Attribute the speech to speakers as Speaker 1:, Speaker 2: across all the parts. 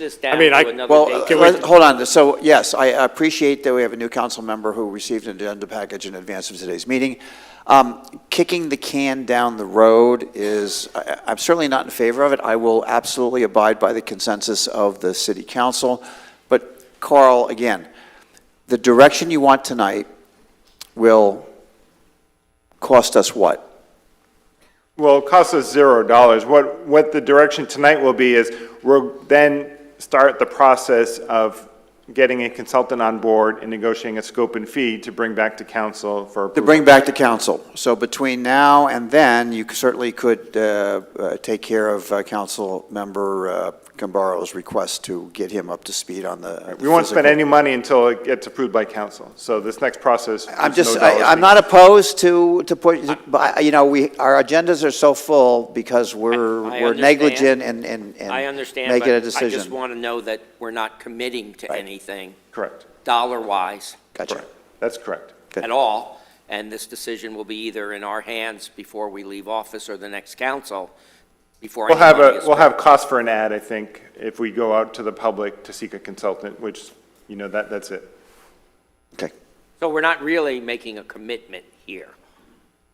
Speaker 1: this down
Speaker 2: mean, I-
Speaker 1: to another
Speaker 3: Well, uh,
Speaker 1: date.
Speaker 2: Can
Speaker 3: let-
Speaker 2: we-
Speaker 3: hold on, so, yes, I appreciate that we have a new council member who received an agenda package in advance of today's meeting. Um, Kicking the can down the road is, I- I'm certainly not in favor of it, I will absolutely abide by the consensus of the city council, but Carl, again, the direction you want tonight will cost us what?
Speaker 4: Well, it costs us zero dollars. What, what the direction tonight will be is we'll then start the process of getting a consultant on board and negotiating a scope and fee to bring back to council for
Speaker 3: To
Speaker 4: approval.
Speaker 3: bring back to council. So between now and then, you certainly could uh, uh, take care of uh, council member uh, Gambaro's request to get him up to speed on the. uh,
Speaker 4: We won't spend
Speaker 3: physical-
Speaker 4: any money until it gets approved by council. So this next process.
Speaker 3: I'm
Speaker 4: there's
Speaker 3: just,
Speaker 4: no dollars
Speaker 3: I- I'm
Speaker 4: being-
Speaker 3: not opposed to, to put, but, I- you know, we, our agendas are so full because we're,
Speaker 1: I
Speaker 3: we're
Speaker 1: understand.
Speaker 3: negligent and, and. and
Speaker 1: I understand,
Speaker 3: Making
Speaker 1: but I
Speaker 3: a
Speaker 1: just
Speaker 3: decision.
Speaker 1: want to know that we're not committing to anything
Speaker 4: Correct,
Speaker 1: dollar-wise
Speaker 3: Gotcha.
Speaker 4: correct. That's correct.
Speaker 3: Good.
Speaker 1: at all, and this decision will be either in our hands before we leave office or the next council, before
Speaker 4: We'll have
Speaker 1: anybody
Speaker 4: a,
Speaker 1: is-
Speaker 4: we'll have cost for an ad, I think, if we go out to the public to seek a consultant, which, you know, that, that's it.
Speaker 3: Okay.
Speaker 1: So we're not really making a commitment here.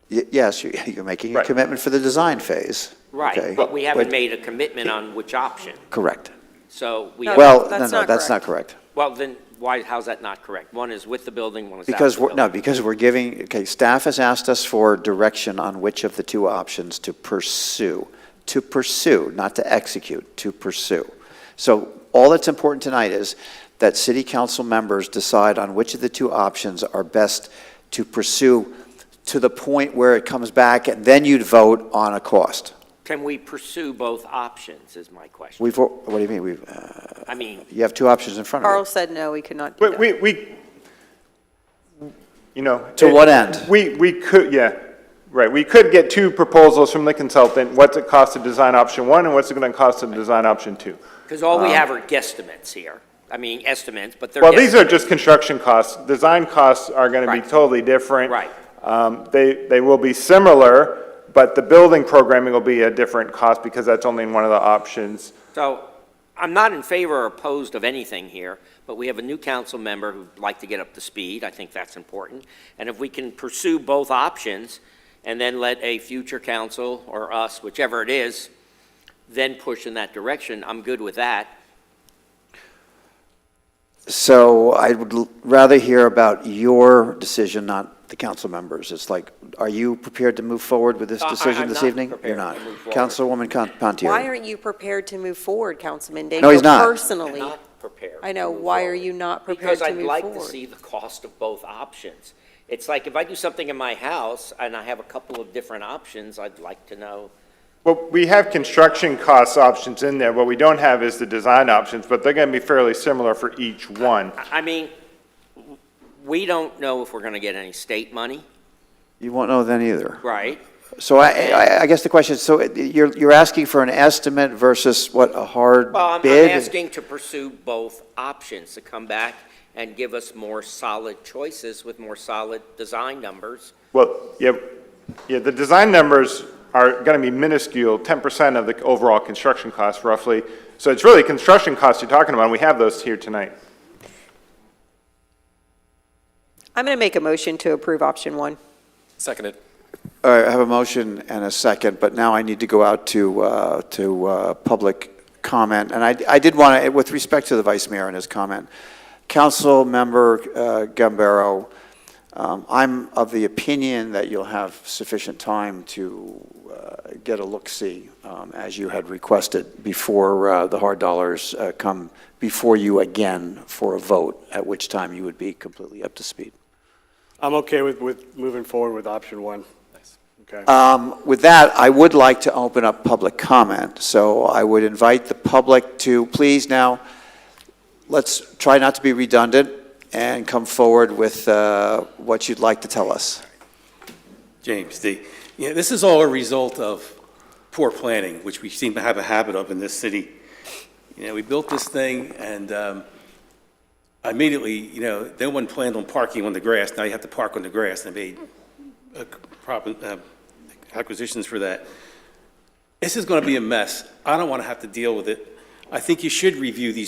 Speaker 3: Y- Yes, you- you're making a
Speaker 4: Right.
Speaker 3: commitment for the design phase. okay?
Speaker 1: Right, but we haven't
Speaker 3: But-
Speaker 1: made a commitment on which option,
Speaker 3: Correct.
Speaker 1: so we.
Speaker 5: No,
Speaker 1: have-
Speaker 3: Well, no,
Speaker 5: that's
Speaker 3: no,
Speaker 5: not
Speaker 3: that's not
Speaker 5: correct.
Speaker 3: correct.
Speaker 1: Well, then, why, how's that not correct? One is with the building, one is out of
Speaker 3: Because,
Speaker 1: the
Speaker 3: we're no,
Speaker 1: building.
Speaker 3: because we're giving, okay, staff has asked us for direction on which of the two options to pursue. To pursue, not to execute, to pursue. So all that's important tonight is that city council members decide on which of the two options are best to pursue to the point where it comes back, and then you'd vote on a cost.
Speaker 1: Can we pursue both options, is my question.
Speaker 3: We've, what do you mean, we've, uh,
Speaker 1: I mean,
Speaker 3: you have two options in front
Speaker 5: Carl
Speaker 3: of
Speaker 5: said no, we could not do
Speaker 4: But
Speaker 5: that.
Speaker 4: we, we, you know.
Speaker 3: To
Speaker 4: it-
Speaker 3: what end?
Speaker 4: We, we could, yeah, right, we could get two proposals from the consultant, what's it cost to design option one, and what's it gonna cost to design option two?
Speaker 1: because all we have are guesstimates here. I mean, estimates, but they're.
Speaker 4: Um, Well, these are
Speaker 1: guesstimates.
Speaker 4: just construction costs, design costs are gonna be
Speaker 1: Right.
Speaker 4: totally different.
Speaker 1: Right.
Speaker 4: Um, they, they will be similar, but the building programming will be a different cost, because that's only in one of the options.
Speaker 1: So I'm not in favor or opposed of anything here, but we have a new council member who'd like to get up to speed. I think that's important. And if we can pursue both options and then let a future council or us, whichever it is, then push in that direction, I'm good with that.
Speaker 3: it. So I would l- rather hear about your decision, not the council members. It's like, are you prepared to move forward with this
Speaker 1: Uh, I- I-
Speaker 3: decision
Speaker 1: I'm
Speaker 3: this
Speaker 1: not
Speaker 3: evening?
Speaker 1: prepared to
Speaker 3: You're
Speaker 1: move
Speaker 3: not.
Speaker 1: forward.
Speaker 3: Councilwoman Con-
Speaker 5: Why
Speaker 3: Pontieri.
Speaker 5: aren't you prepared to move forward, Councilman Daigle?
Speaker 3: No, he's not.
Speaker 1: I'm
Speaker 5: Personally,
Speaker 1: not prepared.
Speaker 5: I know,
Speaker 1: to move
Speaker 5: why are
Speaker 1: forward.
Speaker 5: you not prepared to move
Speaker 1: Because I'd like to
Speaker 5: forward?
Speaker 1: see the cost of both options. It's like if I do something in my house and I have a couple of different options, I'd like to know.
Speaker 4: Well, we have construction cost options in there, what we don't have is the design options, but they're gonna be fairly similar for each one.
Speaker 1: I I mean, w- we don't know if we're going to get any state money,
Speaker 3: You won't know then either.
Speaker 1: right?
Speaker 3: So I, I, I guess the question, is, so it- you're, you're asking for an estimate versus what, a hard
Speaker 1: Well, I'm- I'm
Speaker 3: bid?
Speaker 1: asking to pursue both options, to come back and give us more solid choices with more solid design numbers.
Speaker 4: Well, yeah, yeah, the design numbers are gonna be minuscule, ten percent of the overall construction cost roughly. So it's really construction costs you're talking about, and we have those here tonight.
Speaker 5: I'm going to make a motion to approve option one.
Speaker 6: Seconded.
Speaker 3: All right, I have a motion and a second, but now I need to go out to, uh, to uh, public comment. And I, I did want to, with respect to the vice mayor and his comment, Councilmember uh, Gambaro, um, I'm of the opinion that you'll have sufficient time to uh, get a look-see, um, as you had requested, before uh, the hard dollars uh, come before you again for a vote, at which time you would be completely up to speed.
Speaker 2: I'm okay with, with moving forward with option one. Okay.
Speaker 3: Um, With that, I would like to open up public comment, so I would invite the public to, please now, let's try not to be redundant and come forward with uh, what you'd like to tell us.
Speaker 7: James, the, yeah, this is all a result of poor planning, which we seem to have a habit of in this city. You know, we built this thing and um, immediately, you know, no one planned on parking on the grass. Now you have to park on the grass and they made uh, prop- uh, acquisitions for that. This is going to be a mess. I don't want to have to deal with it. I think you should review these